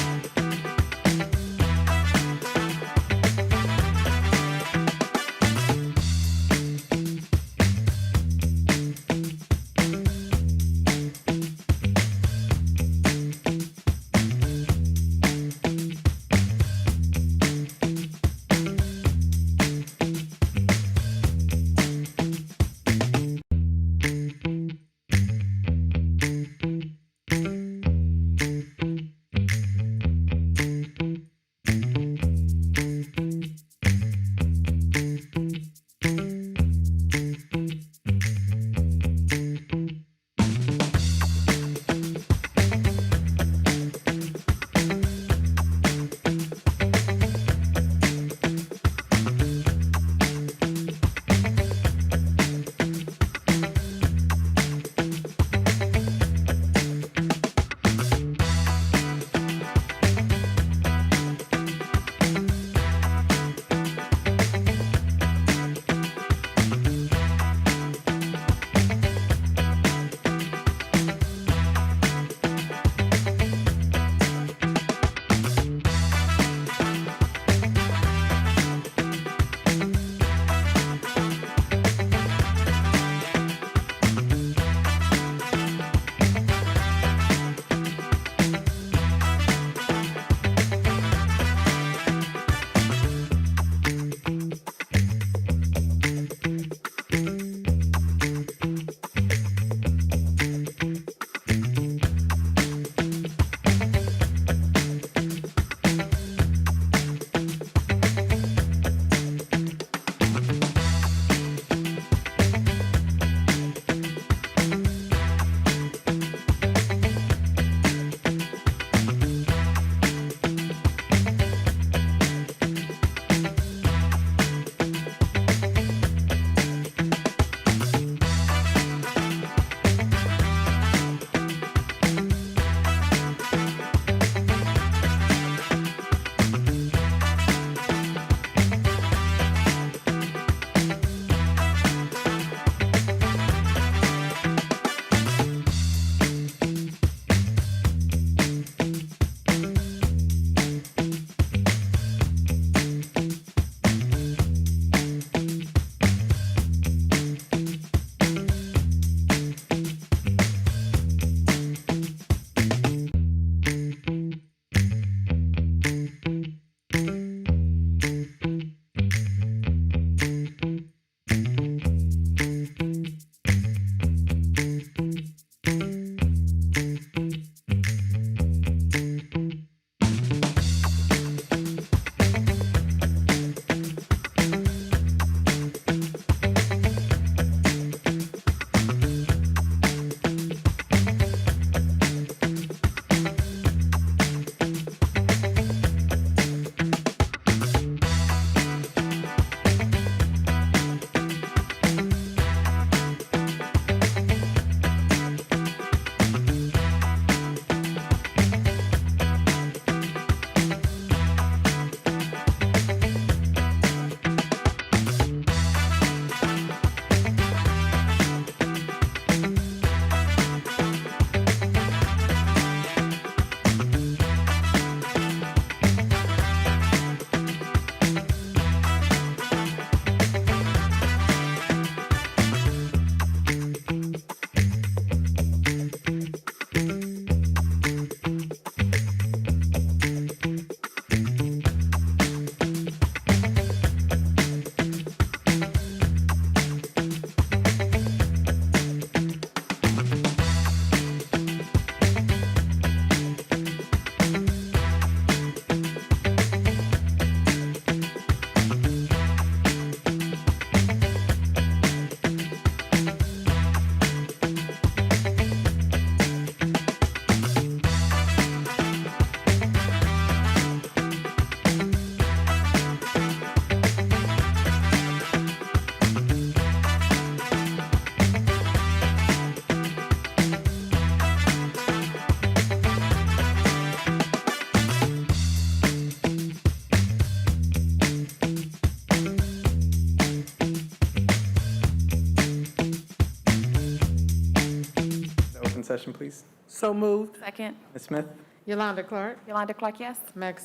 Discussion, please. So moved. Second. Ms. Smith? Yolanda Clark, Yolanda Clark, yes? Max